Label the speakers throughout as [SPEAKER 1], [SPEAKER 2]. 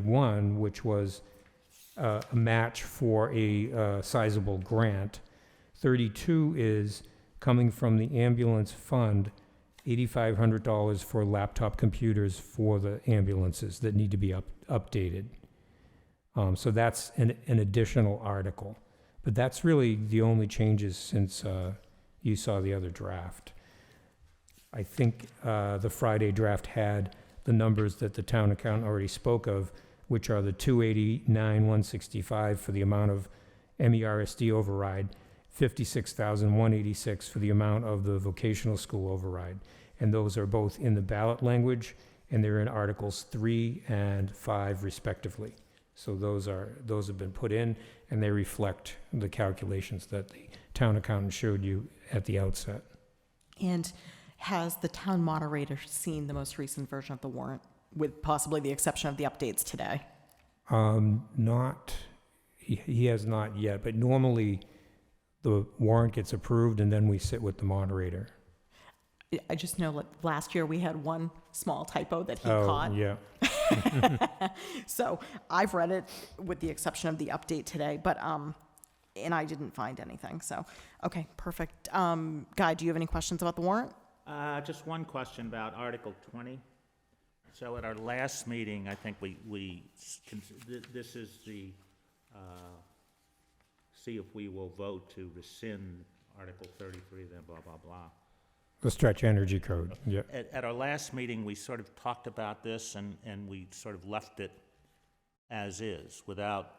[SPEAKER 1] 31, which was uh, a match for a uh, sizable grant. 32 is coming from the ambulance fund, $8,500 for laptop computers for the ambulances that need to be up updated. Um, So that's an an additional article. But that's really the only changes since uh, you saw the other draft. I think uh, the Friday draft had the numbers that the town accountant already spoke of, which are the 289, 165 for the amount of E MERSD override, 56,186 for the amount of the vocational school override. And those are both in the ballot language, and they're in Articles 3 and 5 respectively. So those are, those have been put in, and they reflect the calculations that the town accountant showed you at the outset.
[SPEAKER 2] And has the town moderator seen the most recent version of the warrant, with possibly the exception of the updates today?
[SPEAKER 1] Um, not, he, he has not yet, but normally the warrant gets approved and then we sit with the moderator.
[SPEAKER 2] I- I just know, like, last year we had one small typo that he
[SPEAKER 1] Oh,
[SPEAKER 2] caught.
[SPEAKER 1] Yeah,
[SPEAKER 2] So I've read it with the exception of the update today, but, um, and I didn't find anything, so, okay, perfect. Um, Guy, do you have any questions about the warrant?
[SPEAKER 3] Uh, Just one question about Article 20. So at our last meeting, I think we, we, s- con- th- this is the, uh, see if we will vote to rescind Article 33, then blah, blah, blah.
[SPEAKER 1] the stretch energy code, yeah.
[SPEAKER 3] At, at our last meeting, we sort of talked about this and, and we sort of left it as is without,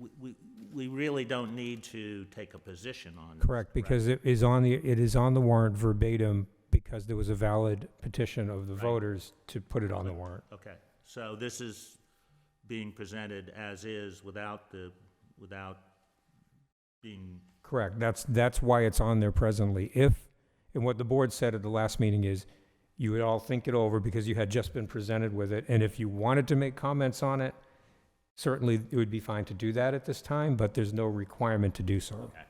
[SPEAKER 3] we- we, we really don't need to take a position on this.
[SPEAKER 1] Correct, because it is on the, it is on the warrant verbatim because there was a valid petition of the voters to put it on the warrant.
[SPEAKER 3] Okay, so this is being presented as is without the, without being,
[SPEAKER 1] Correct. That's, that's why it's on there presently. If, and what the board said at the last meeting is, you would all think it over because you had just been presented with it, and if you wanted to make comments on it, certainly it would be fine to do that at this time, but there's no requirement to do so.
[SPEAKER 3] okay,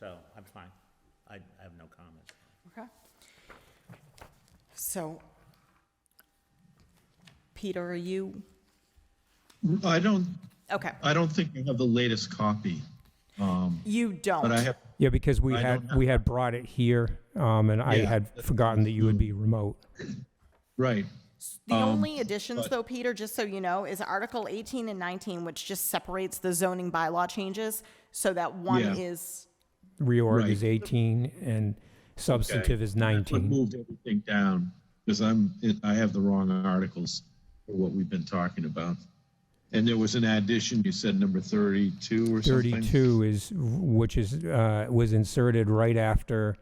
[SPEAKER 3] so I'm fine. I I have no comments.
[SPEAKER 2] Okay. So, Peter, are you,
[SPEAKER 4] I don't,
[SPEAKER 2] okay,
[SPEAKER 4] I don't think I have the latest copy, um,
[SPEAKER 2] you don't.
[SPEAKER 4] but I have,
[SPEAKER 1] Yeah, because we
[SPEAKER 4] I
[SPEAKER 1] had,
[SPEAKER 4] don't
[SPEAKER 1] we had brought it here, um, and I
[SPEAKER 4] Yeah.
[SPEAKER 1] had forgotten that you would be remote.
[SPEAKER 4] right.
[SPEAKER 2] The
[SPEAKER 4] Um,
[SPEAKER 2] only additions, though, Peter, just so you know, is Article 18 and 19, which just separates the zoning bylaw changes, so that one
[SPEAKER 4] Yeah.
[SPEAKER 2] is,
[SPEAKER 1] Reorg
[SPEAKER 4] Right.
[SPEAKER 1] is 18, and substantive is
[SPEAKER 4] I
[SPEAKER 1] 19.
[SPEAKER 4] moved everything down because I'm, it- I have the wrong articles for what we've been talking about. And there was an addition, you said number 32 or something?
[SPEAKER 1] 32 is, which is, uh, was inserted right after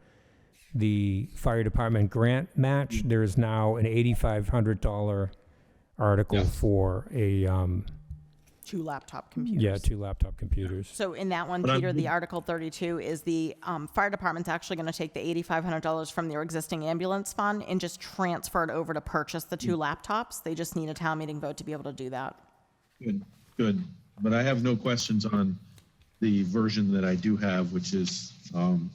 [SPEAKER 1] the fire department grant match. There is now an $8,500 article for a, um,
[SPEAKER 2] two laptop computers.
[SPEAKER 1] yeah, two laptop computers.
[SPEAKER 2] So in that one,
[SPEAKER 4] But I'm-
[SPEAKER 2] Peter, the Article 32 is the um, fire department's actually going to take the $8,500 from their existing ambulance fund and just transfer it over to purchase the two
[SPEAKER 4] Mm.
[SPEAKER 2] laptops. They just need a town meeting vote to be able to do that.
[SPEAKER 4] Good, good. But I have no questions on the version that I do have, which is, um,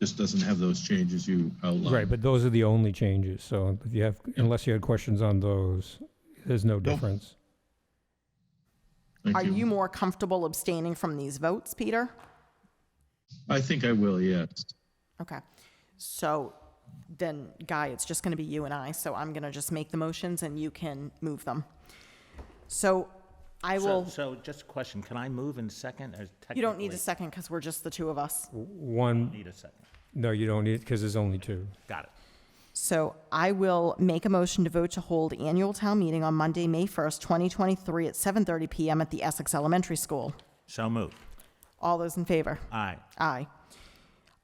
[SPEAKER 4] just doesn't have those changes you outlined.
[SPEAKER 1] Right, but those are the only changes, so if you have, unless you had questions on those, there's no difference.
[SPEAKER 4] Thank
[SPEAKER 2] Are you more comfortable abstaining from these votes, Peter?
[SPEAKER 4] I think I will, yes.
[SPEAKER 2] Okay. So then, Guy, it's just going to be you and I, so I'm going to just make the motions and you can move them. So I
[SPEAKER 3] So,
[SPEAKER 2] will,
[SPEAKER 3] so just a question, can I move in second or technically?
[SPEAKER 2] you don't need a second because we're just the two of us.
[SPEAKER 1] One,
[SPEAKER 3] Need a second.
[SPEAKER 1] no, you don't need, because there's only two.
[SPEAKER 3] Got it.
[SPEAKER 2] So I will make a motion to vote to hold annual town meeting on Monday, May 1st, 2023 at 7:30 PM at the Essex Elementary School.
[SPEAKER 3] So moved.
[SPEAKER 2] All those in favor?
[SPEAKER 3] Aye.
[SPEAKER 2] Aye.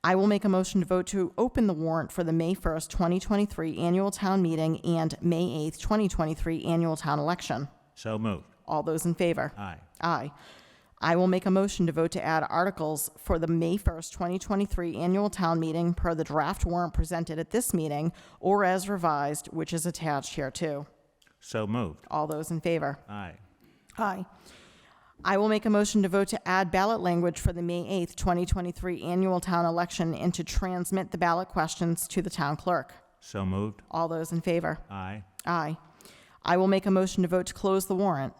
[SPEAKER 2] I will make a motion to vote to open the warrant for the May 1st, 2023 annual town meeting and May 8th, 2023 annual town election.
[SPEAKER 3] So moved.
[SPEAKER 2] All those in favor?
[SPEAKER 3] Aye.
[SPEAKER 2] Aye. I will make a motion to vote to add articles for the May 1st, 2023 annual town meeting per the draft warrant presented at this meeting or as revised, which is attached here too.
[SPEAKER 3] So moved.
[SPEAKER 2] All those in favor?
[SPEAKER 3] Aye.
[SPEAKER 2] Aye. I will make a motion to vote to add ballot language for the May 8th, 2023 annual town election and to transmit the ballot questions to the town clerk.
[SPEAKER 3] So moved.
[SPEAKER 2] All those in favor?
[SPEAKER 3] Aye.
[SPEAKER 2] Aye. I will make a motion to vote to close the warrant.